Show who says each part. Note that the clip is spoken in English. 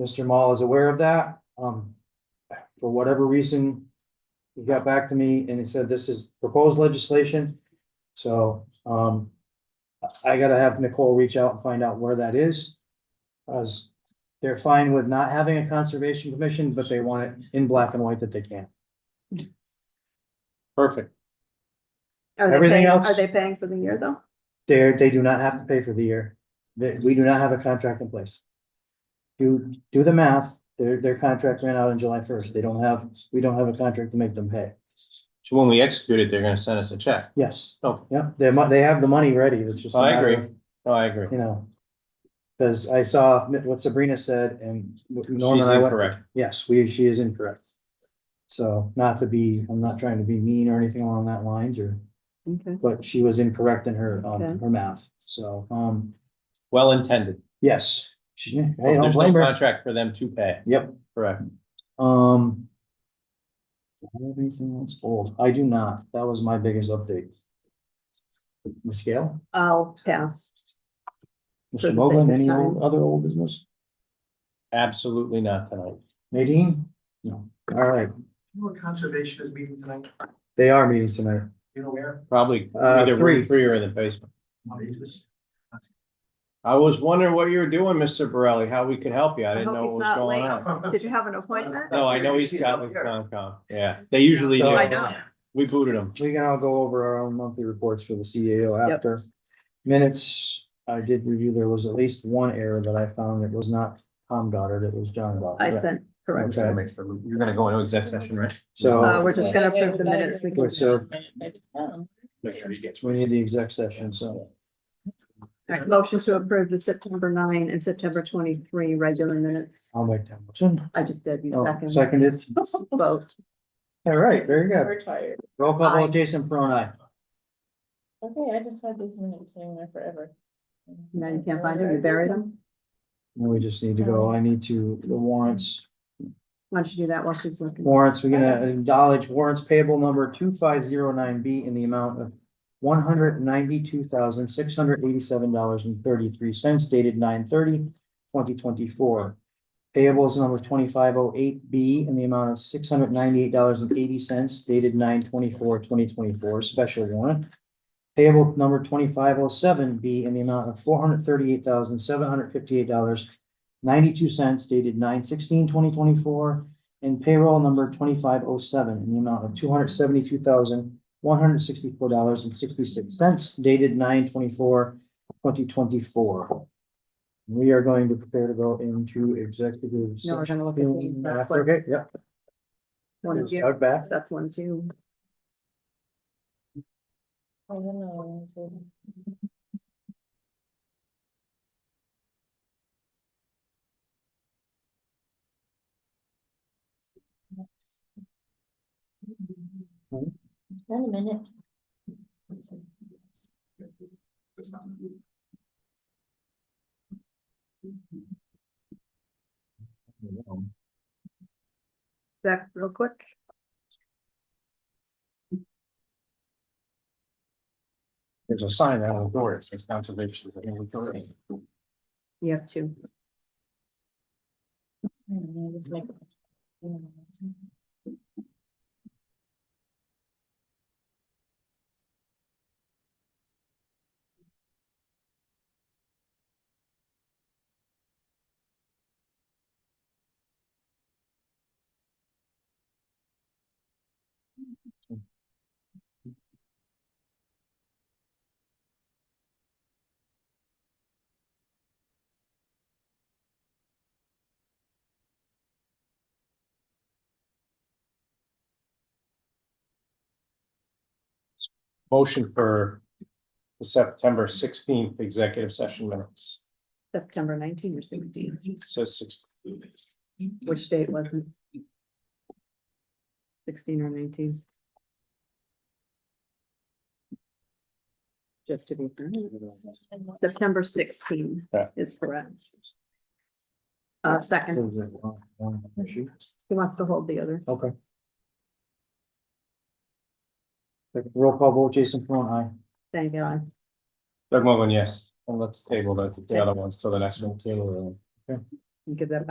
Speaker 1: Mr. Mall is aware of that, um, for whatever reason. He got back to me and he said this is proposed legislation, so, um. I- I gotta have Nicole reach out and find out where that is. As they're fine with not having a conservation commission, but they want it in black and white that they can. Perfect,
Speaker 2: Are they
Speaker 1: Everything
Speaker 2: paying-
Speaker 1: else-
Speaker 2: Are they paying for the year though?
Speaker 1: they're, they do not have to pay for the year, They- we do not have a contract in place. Do, do the math, their, their contract ran out on July first, they don't have, we don't have a contract to make them pay.
Speaker 3: So when we execute it, they're gonna send us a check.
Speaker 1: Yes.
Speaker 3: Okay.
Speaker 1: Yeah, they mu- they have the money ready, it's just. a
Speaker 3: I
Speaker 1: matter
Speaker 3: agree.
Speaker 1: of,
Speaker 3: Oh, I agree.
Speaker 1: You know. Cause I saw what Sabrina said and what Norm
Speaker 3: She's
Speaker 1: and I went,
Speaker 3: incorrect.
Speaker 1: yes, we, she is incorrect. So not to be, I'm not trying to be mean or anything along that lines or,
Speaker 2: Okay.
Speaker 1: but she was incorrect in her, um,
Speaker 2: Okay.
Speaker 1: her math, so, um,
Speaker 3: Well intended.
Speaker 1: yes. She, I don't
Speaker 3: There's no
Speaker 1: blame her.
Speaker 3: contract for them to pay.
Speaker 1: Yep,
Speaker 3: Correct.
Speaker 1: um. do I have Anything else old? I do not. That was my biggest update. Ms. Gale?
Speaker 2: I'll pass. For
Speaker 1: Mr.
Speaker 2: the
Speaker 1: Mogul,
Speaker 2: sake of
Speaker 1: any
Speaker 2: time.
Speaker 1: old- other old business?
Speaker 3: Absolutely not tonight.
Speaker 1: Nadine? No. All right,
Speaker 4: You know what conservation is meeting tonight?
Speaker 1: they are meeting tonight.
Speaker 4: You know where?
Speaker 3: Probably
Speaker 1: Uh,
Speaker 3: either
Speaker 1: three.
Speaker 3: room three or in the basement.
Speaker 4: On Aegis?
Speaker 3: I was wondering what you were doing, Mr. Borelli, how we could help you. I didn't
Speaker 2: hope
Speaker 3: know
Speaker 2: he's
Speaker 3: what was
Speaker 2: not
Speaker 3: going
Speaker 2: late.
Speaker 3: on.
Speaker 2: Did you have an appointment?
Speaker 3: No, I know he's got with Concom. Yeah, they usually
Speaker 1: So-
Speaker 2: I
Speaker 3: do.
Speaker 2: know.
Speaker 3: We booted him.
Speaker 1: We can all go over our own monthly reports for the CAO
Speaker 2: Yep.
Speaker 1: after. Minutes, I did review, there was at least one error that I found. It was not Tom Goddard, it was John
Speaker 2: I
Speaker 1: Goddard.
Speaker 2: sent, correct.
Speaker 1: Okay.
Speaker 3: You're gonna go into exec session,
Speaker 2: Uh,
Speaker 3: right?
Speaker 1: So
Speaker 2: we're just gonna approve the minutes. We can,
Speaker 1: Wait, so-
Speaker 3: Make sure he gets.
Speaker 1: we need the exec session, so.
Speaker 2: Alright, motion to approve the September nine and September twenty-three regular minutes.
Speaker 1: I'll make that motion.
Speaker 2: I just did. you
Speaker 1: Oh,
Speaker 2: second.
Speaker 1: Seconded.
Speaker 2: Vote.
Speaker 1: All right, very good.
Speaker 5: We're tired.
Speaker 1: Roll call
Speaker 2: Aye.
Speaker 1: vote, Jason Peron, aye.
Speaker 5: Okay, I just had these minutes hanging there forever.
Speaker 2: Now you can't find them. You buried them.
Speaker 1: Now we just need to go, I need to, the warrants,
Speaker 2: Why don't you do that while she's looking?
Speaker 1: warrants, we're gonna acknowledge warrants payable number two five zero nine B in the amount of one hundred ninety-two thousand, six hundred eighty-seven dollars and thirty-three cents dated 9/30, 2024. Payables number twenty-five oh eight B in the amount of six hundred ninety-eight dollars and eighty cents dated 9/24, 2024. special warrant. Payable number twenty-five oh seven B in the amount of four hundred thirty-eight thousand, seven hundred fifty-eight dollars ninety-two cents dated 9/16, 2024, And payroll number twenty-five oh seven in the amount of two hundred seventy-two thousand, one hundred sixty-four dollars and sixty-six cents dated 9/24, 2024. We are going to prepare to go into executive.
Speaker 2: No, we're
Speaker 1: session.
Speaker 2: gonna look at these. That's what-
Speaker 1: Okay, yep.
Speaker 2: One of you.
Speaker 1: Start back.
Speaker 2: That's one, two.
Speaker 5: I don't know. Wait a minute.
Speaker 2: Back real quick.
Speaker 3: There's a sign out on the door. It says conservation.
Speaker 2: You have two.
Speaker 3: Motion for the September sixteenth executive session minutes.
Speaker 2: September nineteen or sixteen.
Speaker 3: Says six.
Speaker 2: Which date was it? Sixteen or nineteen? Just to be, fair. September sixteen
Speaker 3: Yeah.
Speaker 2: is correct. Uh, second, he wants to hold the other.
Speaker 1: Okay. Roll call vote, Jason Peron, aye.
Speaker 2: Thank God.
Speaker 3: Doug Morgan, yes. And let's table the, the other ones, so the next one table. it.
Speaker 2: You Give that